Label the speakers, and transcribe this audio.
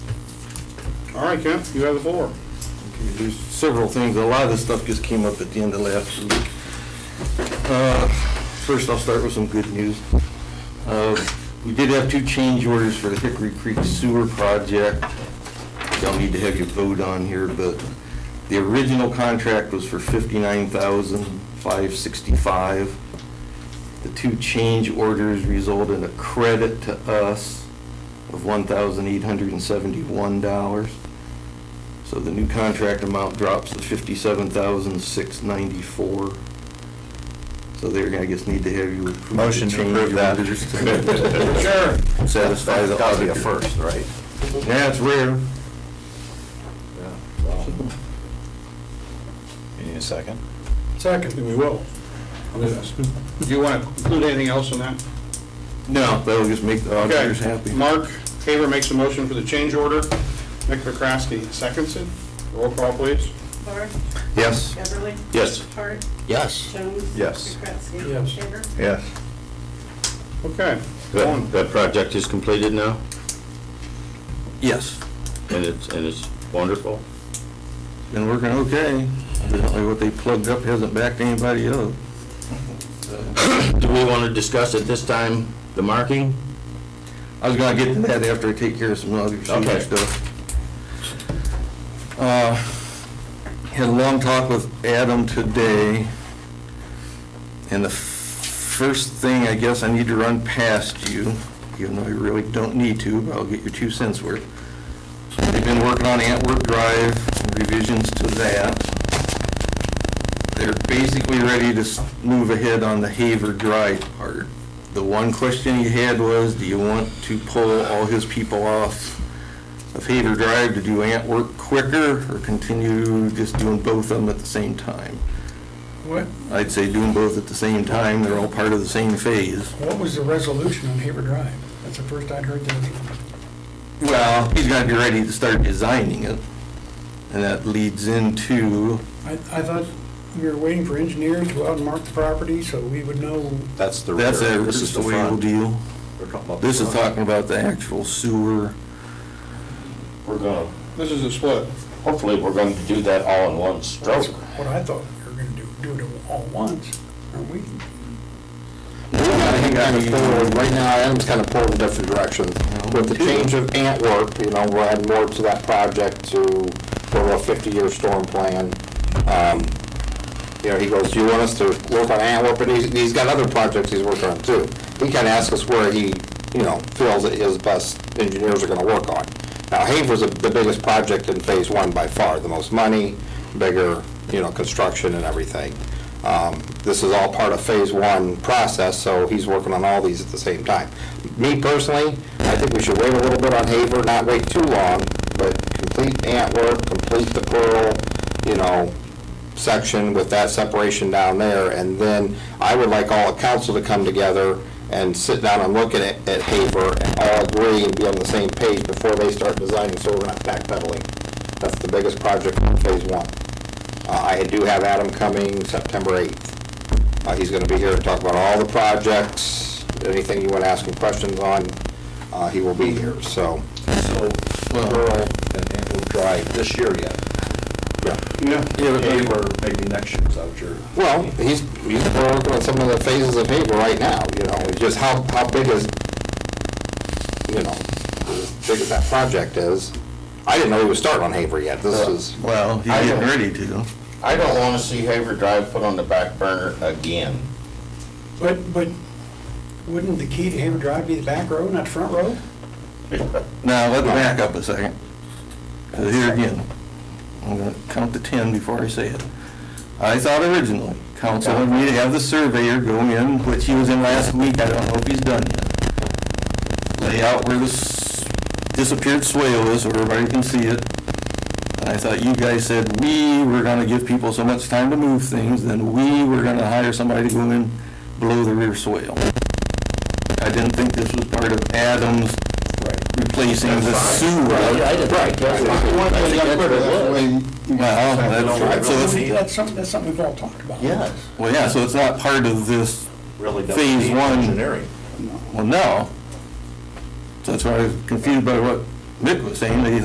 Speaker 1: All right, Kent, you have the floor.
Speaker 2: There's several things, a lot of this stuff just came up at the end of last week. Uh, First, I'll start with some good news. Uh, We did have two change orders for the Hickory Creek Sewer Project. Y'all need to have your vote on here, but the original contract was for $59,565. The two change orders result in a credit to us of $1,871. So the new contract amount drops to fifty-seven thousand, six ninety-four. So there, I guess, need to have you approve. the
Speaker 3: Motion to
Speaker 2: change
Speaker 3: approve that.
Speaker 2: orders to
Speaker 1: Sure.
Speaker 2: Satisfy the auditor.
Speaker 3: That'll be a first, right?
Speaker 2: Yeah, it's rare.
Speaker 3: You need a second?
Speaker 1: Second. We will. Do you want to include anything else in that?
Speaker 2: No, that'll just make the auditors
Speaker 1: Okay.
Speaker 2: happy.
Speaker 1: Mark Haver makes a motion for the change order. Mick McCrasky seconds it. Roll call, please.
Speaker 4: Barth,
Speaker 2: Yes.
Speaker 4: Beverly,
Speaker 2: Yes.
Speaker 4: Hart,
Speaker 3: Yes.
Speaker 4: Jones.
Speaker 3: Yes.
Speaker 4: McCrasky. Yes. Haver.
Speaker 3: Yes.
Speaker 1: Okay.
Speaker 5: That,
Speaker 1: One.
Speaker 5: that project is completed now,
Speaker 2: Yes.
Speaker 5: and it's, and it's wonderful.
Speaker 2: Been working okay. Evidently what they plugged up hasn't backed anybody up.
Speaker 5: Do we want to discuss at this time the marking?
Speaker 2: I was gonna get to that after I take care of some other
Speaker 5: Okay.
Speaker 2: senior stuff. Uh, Had a long talk with Adam today, and the f- first thing I guess I need to run past you, even though I really don't need to, but I'll get your two cents worth. They've been working on Antwerp Drive, revisions to that. They're basically ready to s- move ahead on the Haver Drive part. The one question he had was, do you want to pull all his people off of Haver Drive to do ant work quicker or continue just doing both of them at the same time?
Speaker 6: What,
Speaker 2: I'd say doing both at the same time, they're all part of the same phase.
Speaker 6: what was the resolution on Haber Drive? That's the first I'd heard that.
Speaker 2: Well, he's got to be ready to start designing it, and that leads into,
Speaker 6: I, I thought we were waiting for engineers to go out and mark the property so we would know.
Speaker 3: That's the rear.
Speaker 2: that's a,
Speaker 3: This is the
Speaker 2: way we'll
Speaker 3: front.
Speaker 2: deal.
Speaker 3: We're talking about the
Speaker 2: This is
Speaker 3: front.
Speaker 2: talking about the actual sewer.
Speaker 5: We're gonna,
Speaker 1: This is a split.
Speaker 5: hopefully, we're going to do that all in one
Speaker 6: That's
Speaker 5: stroke.
Speaker 6: what I thought we were gonna do, do it all at once, aren't we?
Speaker 7: kind of pulled, right now, Adam's kind of pulled in different directions. With the change of Antwerp, you know, we're adding more to that project to, for a 50-year storm plan. Um, You know, he goes, do you want us to work on Antwerp? And he's, he's got other projects he's working on too. He kind of asks us where he, you know, feels that his best engineers are going to work on. Now, Haver's the biggest project in Phase One by far, the most money, bigger, you know, construction and everything. Um, This is all part of Phase One process, so he's working on all these at the same time. Me personally, I think we should wait a little bit on Haver, not wait too long, but complete Antwerp, complete the Pearl, you know, section with that separation down there, and then I would like all of council to come together and sit down and look at it, at Haver, and all agree and be on the same page before they start designing, so we're not backpedaling. That's the biggest project in phase one. Uh, I do have Adam coming September eighth. Uh, he's gonna be here to talk about all the projects, anything you wanna ask him questions on, uh, he will be here, so.
Speaker 3: So, Pearl and Antwerp Drive this year yet.
Speaker 7: yeah.
Speaker 1: Yeah.
Speaker 3: Haber, maybe next year, is that what you're?
Speaker 7: Well, he's, he's working on some of the phases of Haver right now, you know, it's just how, how big is, you know, as big as that project is. I didn't know he was starting on Haver yet, this is,
Speaker 2: Well, he's
Speaker 5: I
Speaker 2: getting
Speaker 5: don't-
Speaker 2: ready to.
Speaker 5: I don't want to see Haver Drive put on the back burner again.
Speaker 6: But, but wouldn't the key to Haber Drive be the back row, not the front row?
Speaker 2: Now, let's back up a second. 'Cause Here again, I'm going to count to 10 before I say it. I thought originally, council wanted me to have the surveyor go in, which he was in last week, I don't know if he's done yet. Lay out where this disappeared swale is, so everybody can see it. And I thought you guys said, we were going to give people so much time to move things, then we were going to hire somebody to go in below the rear swale. I didn't think this was part of Adams replacing the sewer.
Speaker 5: Right.
Speaker 2: Well, that's, so it's-
Speaker 6: That's something, that's something we've all talked about.
Speaker 3: Yes.
Speaker 2: well, yeah, so it's not part of this,
Speaker 3: Really
Speaker 2: Phase
Speaker 3: doesn't need
Speaker 2: one.
Speaker 3: engineering.
Speaker 2: well, no. So that's why I was confused by what Mick was saying, that he